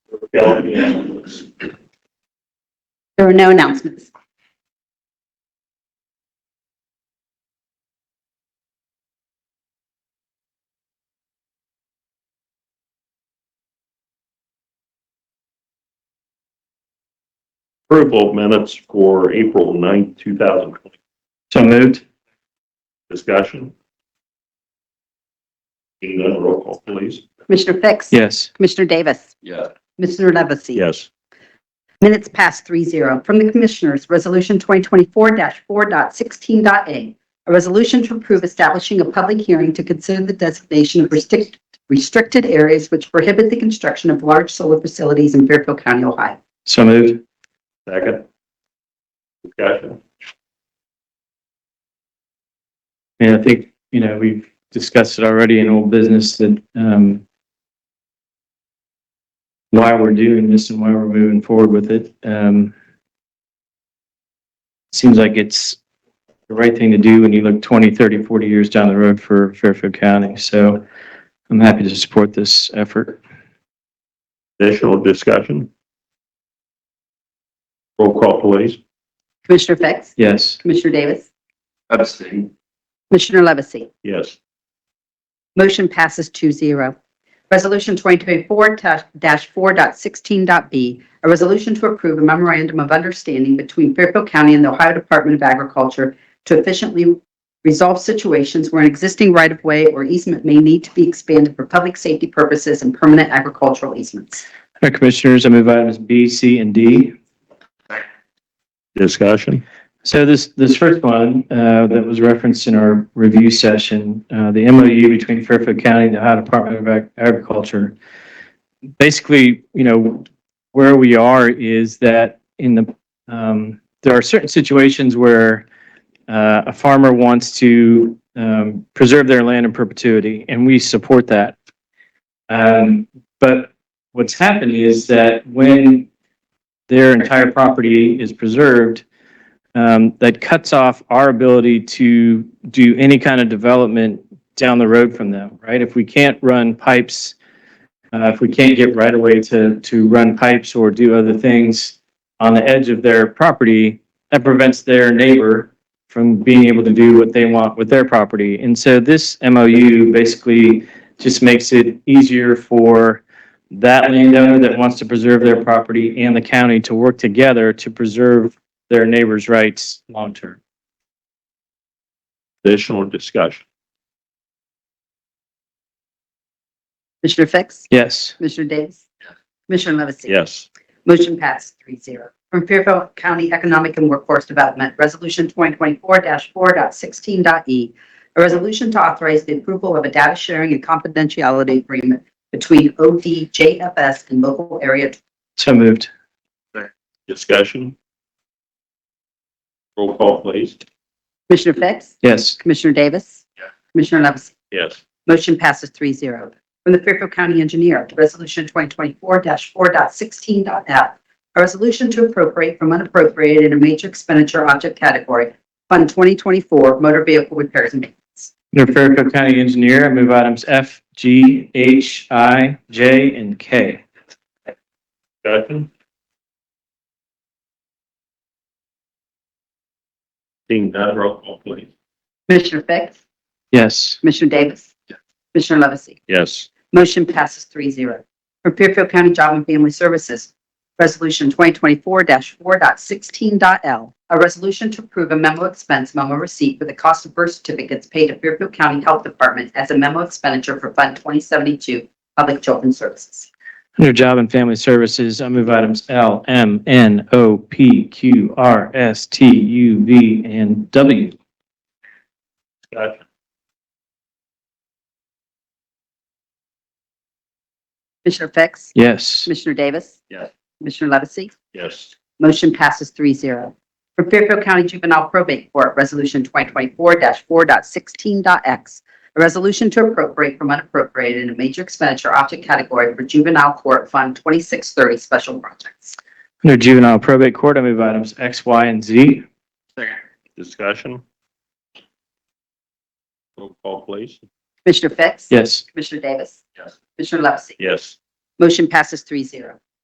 There are no announcements. Approval of minutes for April 9th, 2020. So moved. Discussion? Seeing none, roll call, please. Commissioner Fix? Yes. Commissioner Davis? Yes. Mr. Levesey? Yes. Minutes past three zero. From the Commissioners, Resolution 2024-4.16.a. A resolution to approve establishing a public hearing to consider the designation of restrict- restricted areas which prohibit the construction of large solar facilities in Fairfield County, Ohio. So moved. Second? Discussion? And I think, you know, we've discussed it already in old business that, um, why we're doing this and why we're moving forward with it. Um, seems like it's the right thing to do when you look 20, 30, 40 years down the road for Fairfield County. So I'm happy to support this effort. Additional discussion? Roll call, please. Commissioner Fix? Yes. Commissioner Davis? Abstain. Commissioner Levesey? Yes. Motion passes 2-0. Resolution 2024-4.16.b, a resolution to approve a memorandum of understanding between Fairfield County and the Ohio Department of Agriculture to efficiently resolve situations where an existing right-of-way or easement may need to be expanded for public safety purposes and permanent agricultural easements. All right, Commissioners, I move items B, C, and D. Discussion? So this, this first one uh, that was referenced in our review session, uh, the MOU between Fairfield County and the Ohio Department of Ag- Agriculture. Basically, you know, where we are is that in the, um, there are certain situations where uh, a farmer wants to um, preserve their land in perpetuity, and we support that. Um, But what's happened is that when their entire property is preserved, um, that cuts off our ability to do any kind of development down the road from them, right? If we can't run pipes, uh, if we can't get right away to, to run pipes or do other things on the edge of their property, that prevents their neighbor from being able to do what they want with their property. And so this MOU basically just makes it easier for that landowner that wants to preserve their property and the county to work together to preserve their neighbors' rights long-term. Additional discussion? Commissioner Fix? Yes. Commissioner Davis? Commissioner Levesey? Yes. Motion passed three zero. From Fairfield County Economic and Workforce Development, Resolution 2024-4.16.e, E. a resolution to authorize the approval of a data sharing and confidentiality agreement between ODJFS and local area. So moved. Discussion? Roll call, please. Commissioner Fix? Yes. Commissioner Davis? Yeah. Commissioner Levesey? Yes. Motion passes three zero. From the Fairfield County Engineer, Resolution 2024-4.16.f. A resolution to appropriate from unappropriated in a major expenditure object category, Fund 2024 Motor Vehicle Repairs and Maintenance. Under Fairfield County Engineer, I move items F, G, H, I, J, and K. Discussion? Seeing none, roll call, please. Commissioner Fix? Yes. Commissioner Davis? Commissioner Levesey? Yes. Motion passes three zero. From Fairfield County Job and Family Services, Resolution 2024-4.16.L, a resolution to approve a memo expense memo receipt for the cost of birth certificates paid to Fairfield County Health Department as a memo expenditure for Fund 2072 Public Children's Services. Under Job and Family Services, I move items L, M, N, O, P, Q, R, S, T, U, V, and W. Discussion? Commissioner Fix? Yes. Commissioner Davis? Yes. Commissioner Levesey? Yes. Motion passes three zero. From Fairfield County Juvenile Probate Court, Resolution 2024-4.16.x, a resolution to appropriate from unappropriated in a major expenditure object category for Juvenile Court Fund 2630 Special Projects. Under Juvenile Probate Court, I move items X, Y, and Z. Discussion? Roll call, please. Commissioner Fix? Yes. Commissioner Davis? Yes. Commissioner Levesey? Yes. Motion passes three zero.